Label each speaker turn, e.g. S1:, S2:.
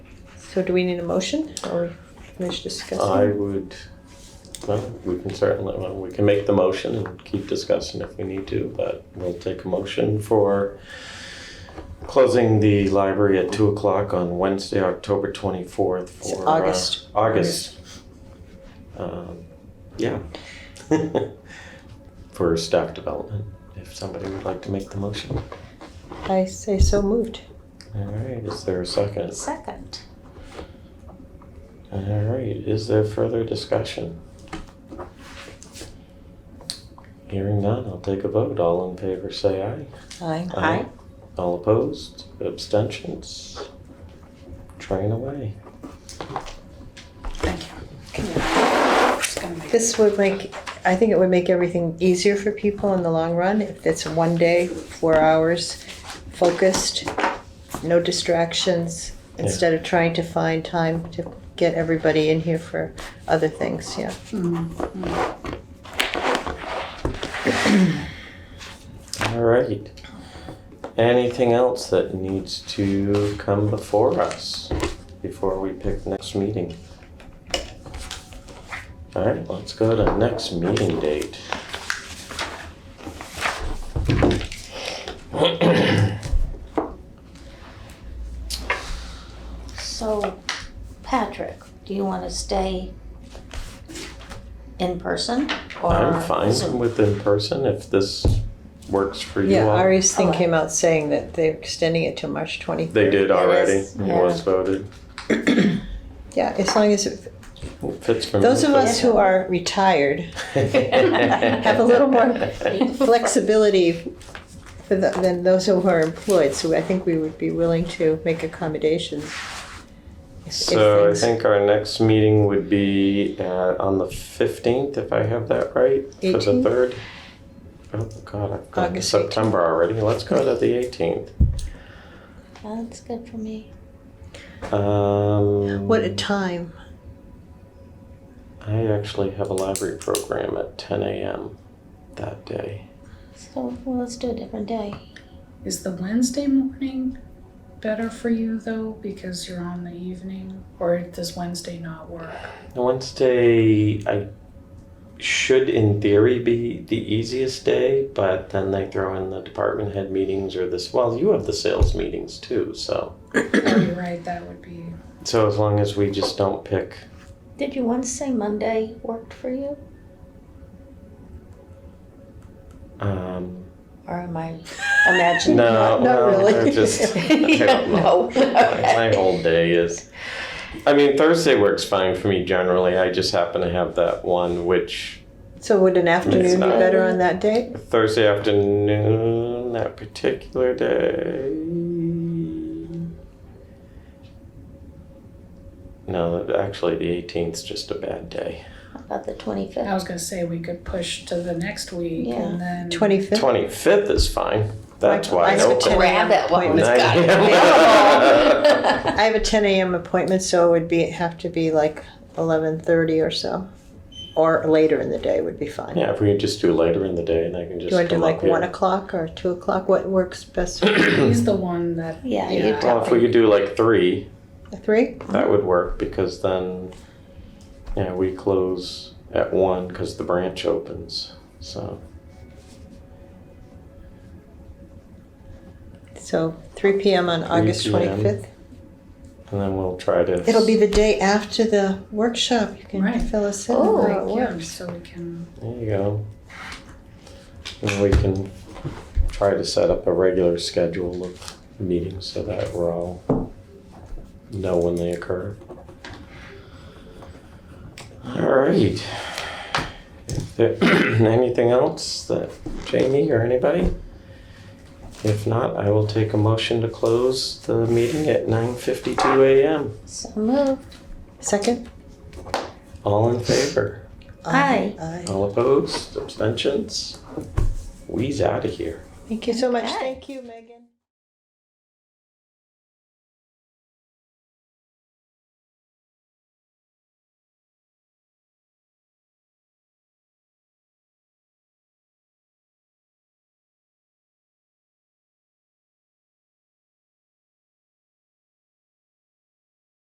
S1: So do we need a motion or we finish discussing?
S2: I would, well, we can certainly, well, we can make the motion and keep discussing if we need to, but we'll take a motion for closing the library at two o'clock on Wednesday, October twenty-fourth
S1: It's
S2: for. uh,
S1: August.
S2: August. Um, yeah. For staff development, if somebody would like to make the motion.
S1: I say so moved.
S2: All right, is there a second?
S3: Second.
S2: All right, is there further discussion? Hearing none, I'll take a vote. All in favor, say aye.
S1: Aye.
S3: Aye.
S2: All opposed? Abstentions? Train away.
S3: Thank you. Can you- just gonna make-
S1: This would make, I think it would make everything easier for people in the long run if it's one day, four hours, focused, no distractions,
S2: Yeah.
S1: instead of trying to find time to get everybody in here for other things, yeah.
S4: Hmm.
S3: Mm, mm.
S2: All right. Anything else that needs to come before us before we pick next meeting? All right, let's go to next meeting date.
S3: So, Patrick, do you want to stay in person or?
S2: I'm fine
S3: Zoom?
S2: with in person if this works for you
S1: Yeah,
S2: all.
S1: Ari's thing
S3: Okay.
S1: came out saying that they're extending it to March twenty-third.
S2: They did
S3: It
S2: already.
S3: is,
S2: It
S3: yeah.
S2: was voted.
S1: Yeah, as long as, it-
S2: Fits for me.
S1: those of us who are retired have a little more flexibility for the, than those who are employed, so I think we would be willing to make accommodations. if- if
S2: So I
S1: things-
S2: think our next meeting would be uh, on the fifteenth, if I have that right, for the
S1: 18th?
S2: third. Oh God, I've gone to
S1: August 18th.
S2: September already. Let's go to the eighteenth.
S3: That's good for me.
S2: Um,
S1: What a time.
S2: I actually have a library program at ten a.m. that day.
S3: So, well, let's do a different day.
S4: Is the Wednesday morning better for you though because you're on the evening or does Wednesday not work?
S2: Wednesday, I should in theory be the easiest day, but then they throw in the department head meetings or this. Well, you have the sales meetings too, so
S4: oh, you're right, that would be
S2: so as long as we just don't pick.
S3: Did you once say Monday worked for you?
S2: Um,
S3: Or am I imagining?
S2: no,
S1: Not- not
S2: no,
S1: really.
S2: I just I
S3: Yeah,
S2: don't know.
S3: no. Okay.
S2: My whole day is. I mean, Thursday works fine for me generally. I just happen to have that one, which
S1: So would an afternoon be
S2: not-
S1: better on that day?
S2: Thursday afternoon, that particular day. No, actually, the 18th is just a bad day.
S3: How About the
S4: I
S3: twenty-fifth?
S4: was gonna say we could push to the next week
S3: Yeah.
S4: and then
S2: Mm-hmm.
S1: Twenty-fifth?
S2: 25th is fine. That's wide
S1: Mine's for
S2: open.
S1: 10 a.m.
S3: Grab it while it's
S1: appointment.
S3: got it
S2: Nine.
S3: available.
S1: I have a ten AM appointment, so it would be, have to be like eleven thirty or so. Or later in the day would be fine.
S2: Yeah, if we can just do later in the day, and I can
S1: Do
S2: just
S1: you want to do
S2: come
S1: like
S2: up here.
S1: one o'clock or two o'clock? What works best?
S4: he's the one that
S3: Yeah, you
S4: Yeah.
S2: Well, if we could do like three,
S1: Three?
S2: that would work because then, yeah, we close at one because the branch opens. So
S1: So three PM on
S2: 3
S1: August
S2: p.m..
S1: twenty-fifth?
S2: and then we'll try to.
S1: It'll be the day after the workshop. You can
S4: Right.
S1: fill us in on
S3: Oh,
S1: how it
S4: like, yeah,
S1: works.
S4: so we can
S2: There you go. And we can try to set up a regular schedule of meetings so that we're all know when they occur. All right. Is there Anything else that Jamie or anybody? If not, I will take a motion to close the meeting at nine fifty-two AM.
S3: So move.
S1: Second?
S2: All in favor?
S3: Aye.
S1: Aye.
S2: All opposed? Abstentions? We's out of here.
S1: Thank you so much.
S3: Okay.
S1: Thank you, Megan.